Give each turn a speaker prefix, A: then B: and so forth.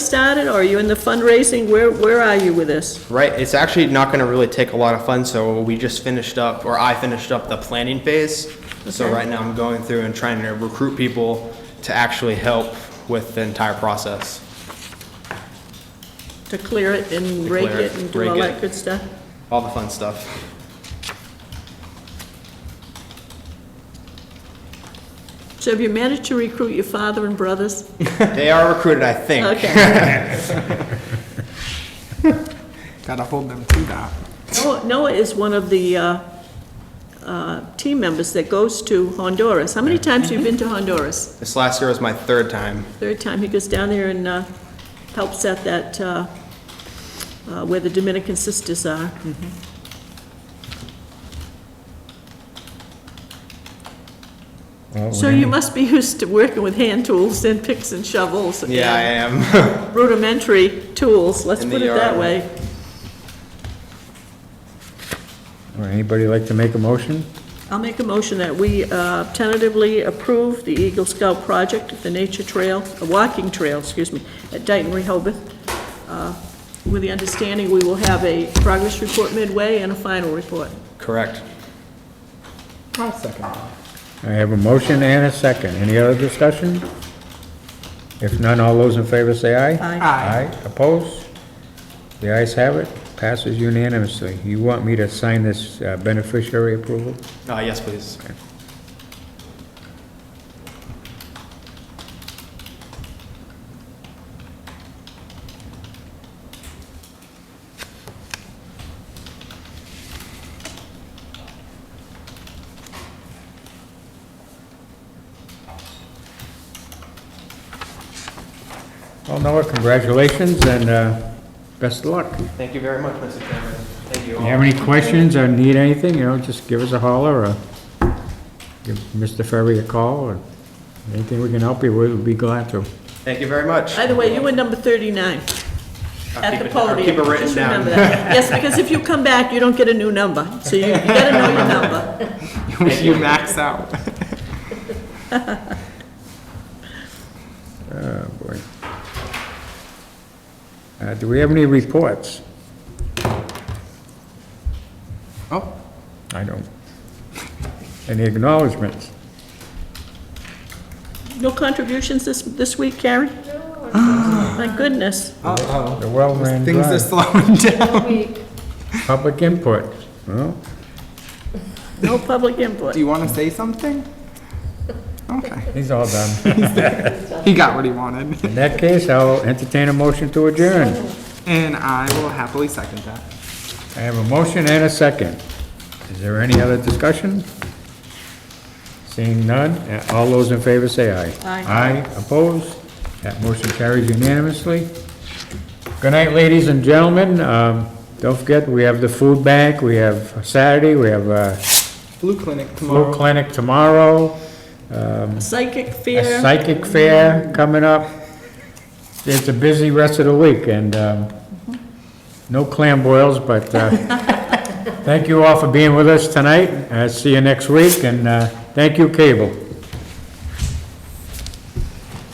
A: started, or are you in the fundraising? Where, where are you with this?
B: Right, it's actually not gonna really take a lot of funds, so we just finished up, or I finished up the planning phase. So
A: Okay.
B: right now I'm going through and trying to recruit people to actually help with the entire process.
A: To clear it and
B: To
A: rake
B: clear
A: it
B: it,
A: and do
B: rake
A: all that
B: it.
A: good stuff?
B: All the fun stuff.
A: So have you managed to recruit your father and brothers?
B: They are recruited, I think.
A: Okay.
C: Gotta hold them to that.
A: Noah Noah is one of the uh, uh, team members that goes to Honduras. How many times have you been to Honduras?
B: This last year was my third time.
A: Third time, he goes down there and uh, helps at that, uh, uh, where the Dominican sisters are. So you must be used to working with hand tools and picks and shovels.
B: Yeah, I
A: and
B: am.
A: Rudimentary tools, let's
B: In
A: put
B: the
A: it that
B: yard.
A: way.
D: Would anybody like to make a motion?
A: I'll make a motion that we uh, tentatively approve the Eagle Scout project, the nature trail, a walking trail, excuse me, at Dayton Rehoboth, uh, with the understanding we will have a progress report midway and a final report.
B: Correct.
C: I'll second that.
D: I have a motion and a second. Any other discussion? If none, all those in favor say aye.
A: Aye.
C: Aye.
D: Opposed? The ayes have it, passes unanimously. You want me to sign this uh, beneficiary approval?
B: Uh, yes, please.
D: Well, Noah, congratulations and uh, best of luck. If
B: Thank you very much, Mr. Chairman. Thank you
D: you
B: all.
D: have any questions or need anything, you know, just give us a holler or give Mr. Ferry a call or anything we can help you with, we'd be glad to.
B: Thank you very much.
A: By the way, you were number 39
B: I'll
A: at
B: keep
A: the
B: it- I'll
A: podium.
B: Keep it written
A: Just remember
B: down.
A: that. Yes, because if you come back, you don't get a new number, so you you gotta know your number.
C: You max out.
D: Oh, boy. Uh, Do we have any reports?
C: Oh,
D: I don't. Any acknowledgements?
A: No contributions this, this week, Karen?
D: Ah.
A: My goodness.
C: uh-oh.
D: The well ran
C: Things are
D: dry.
C: slowing down.
D: Public input. Well,
A: No public input.
C: Do you wanna say something? Okay.
D: he's all done.
C: He got what he wanted.
D: In that case, I'll entertain a motion to adjourn.
C: And I will happily second that.
D: I have a motion and a second. Is there any other discussion? Seeing none, uh, all those in favor say aye.
A: Aye.
D: Aye, opposed? That motion carries unanimously. Good night, ladies and gentlemen. Um, Don't forget, we have the food bank, we have Saturday, we have uh,
C: Blue clinic
D: flu
C: tomorrow.
D: clinic tomorrow,
A: Psychic
D: a
A: fear.
D: psychic fair coming up. It's a busy rest of the week, and um, no clam boils, but uh, thank you all for being with us tonight. Uh, See you next week, and uh, thank you, Cable.